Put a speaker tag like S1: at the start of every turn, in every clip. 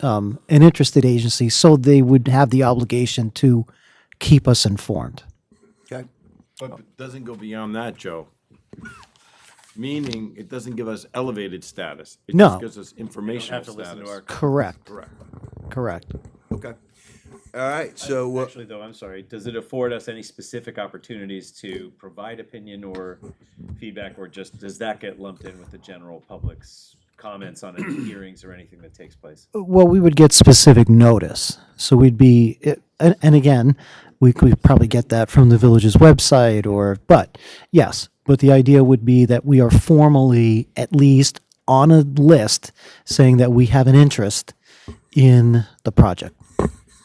S1: um, an interested agency, so they would have the obligation to keep us informed.
S2: Okay.
S3: But it doesn't go beyond that, Joe. Meaning, it doesn't give us elevated status. It
S1: No.
S3: just gives us informational
S4: Have to listen to
S3: status.
S4: our,
S1: Correct.
S3: Correct.
S1: Correct.
S2: Okay. All right, so, uh,
S4: actually though, I'm sorry, does it afford us any specific opportunities to provide opinion or feedback? Or just, does that get lumped in with the general public's comments on any hearings or anything that takes place?
S1: Well, we would get specific notice. So we'd be, it- and, and again, we could probably get that from the village's website or, but yes. But the idea would be that we are formally at least on a list saying that we have an interest in the project.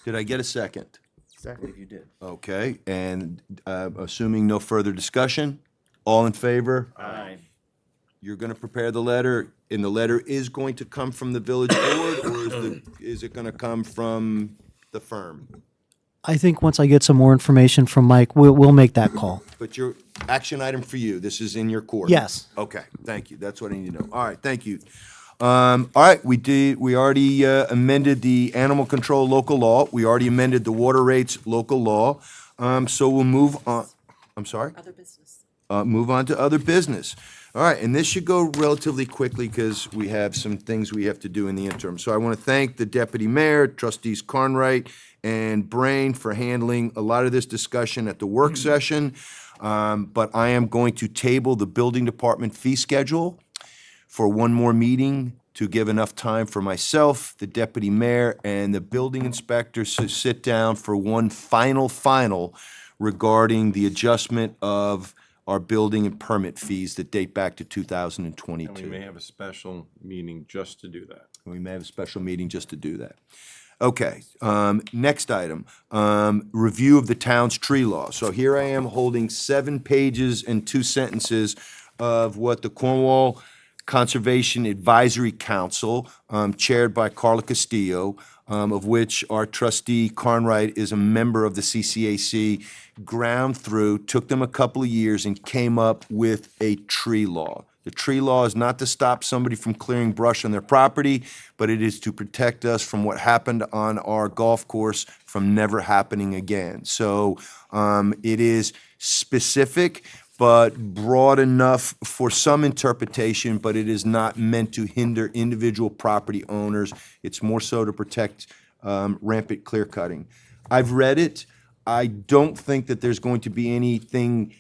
S2: did I get a second?
S4: Exactly, you did.
S2: Okay, and uh, assuming no further discussion, all in favor?
S4: Aye.
S2: You're going to prepare the letter, and the letter is going to come from the village board, or is the- is it going to come from the firm?
S1: I think once I get some more information from Mike, we'll, we'll make that call.
S2: But your action item for you, this is in your court?
S1: Yes.
S2: Okay, thank you. That's what I need to know. All right, thank you. Um, all right, we did, we already uh, amended the animal control local law. We already amended the water rates local law. Um, so we'll move on, I'm sorry?
S5: Other business.
S2: Uh, move on to other business. All right, and this should go relatively quickly because we have some things we have to do in the interim. So I want to thank the deputy mayor, trustees Carnwright and Brain for handling a lot of this discussion at the work session. Um, but I am going to table the building department fee schedule for one more meeting to give enough time for myself, the deputy mayor, and the building inspector to sit down for one final, final regarding the adjustment of our building and permit fees that date back to two thousand and
S3: And we may
S2: twenty-two.
S3: have a special meeting just to do that.
S2: We may have a special meeting just to do that. Okay, um, next item, um, review of the town's tree law. So here I am holding seven pages and two sentences of what the Cornwall Conservation Advisory Council, um, chaired by Carla Castillo, um, of which our trustee Carnwright is a member of the CCAC, ground through, took them a couple of years and came up with a tree law. The tree law is not to stop somebody from clearing brush on their property, but it is to protect us from what happened on our golf course from never happening again. So um, it is specific, but broad enough for some interpretation, but it is not meant to hinder individual property owners. It's more so to protect um, rampant clear cutting. I've read it. I don't think that there's going to be anything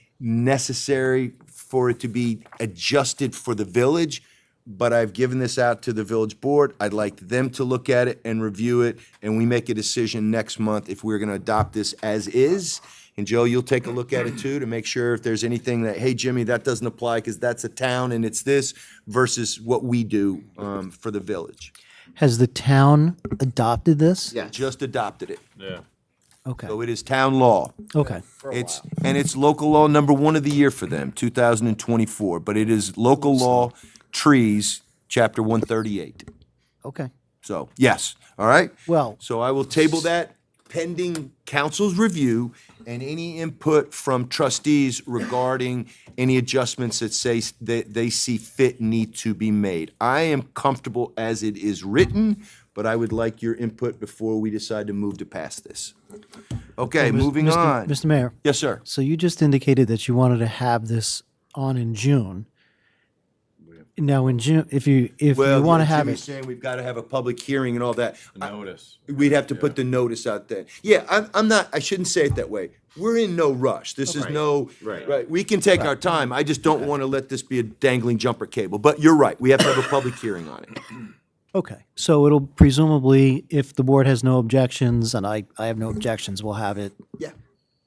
S2: necessary for it to be adjusted for the village, but I've given this out to the village board. I'd like them to look at it and review it, and we make a decision next month if we're gonna adopt this as is. And Joe, you'll take a look at it too, to make sure if there's anything that, hey, Jimmy, that doesn't apply because that's a town and it's this versus what we do, um, for the village.
S1: Has the town adopted this?
S2: Yeah. Just adopted it.
S3: Yeah.
S1: Okay,
S2: So it is town law.
S1: okay.
S2: It's, and it's local law number one of the year for them, 2024, but it is local law trees, chapter 138.
S1: Okay.
S2: So, yes, all right?
S1: Well-
S2: So I will table that pending council's review and any input from trustees regarding any adjustments that say, s- that they see fit need to be made. I am comfortable as it is written, but I would like your input before we decide to move to pass this. Okay, moving
S1: Mr.
S2: on.
S1: Mr. Mayor,
S2: Yes, sir.
S1: so you just indicated that you wanted to have this on in June. Now, in June, if you, if you want to have
S2: Jimmy's
S1: it,
S2: saying we've got to have a public hearing and all that. I-
S3: Notice.
S2: We'd have to put the notice out there. Yeah, I'm, I'm not, I shouldn't say it that way. We're in no rush. This is no,
S3: Right.
S2: right, we can take our time. I just don't want to let this be a dangling jumper cable. But you're right, we have to have a public hearing on it.
S1: okay. So it'll presumably, if the board has no objections, and I, I have no objections, we'll have it.
S2: Yeah.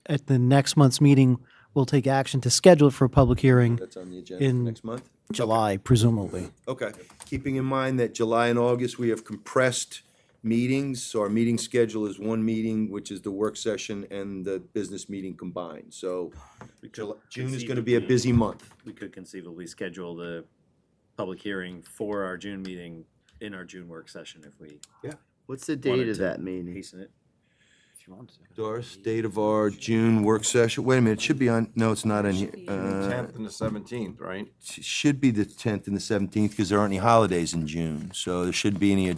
S1: At the next month's meeting, we'll take action to schedule it for a public hearing
S2: That's on the agenda for
S1: In-
S2: next month?
S1: July, presumably.
S2: Okay. Keeping in mind that July and August, we have compressed meetings, so our meeting schedule is one meeting, which is the work session and the business meeting combined. So Jul- June is going to be a busy month.
S4: We could conceivably schedule the public hearing for our June meeting, in our June work session if we
S6: What's the
S4: wanted
S6: date of
S4: to
S6: that meeting?
S4: hasten it.
S2: Doris, date of our June work session, wait a minute, it should be on, no, it's not on here. Uh,
S3: Tenth and the seventeenth, right?
S2: it Should be the tenth and the seventeenth, because there aren't any holidays in June, so there shouldn't be any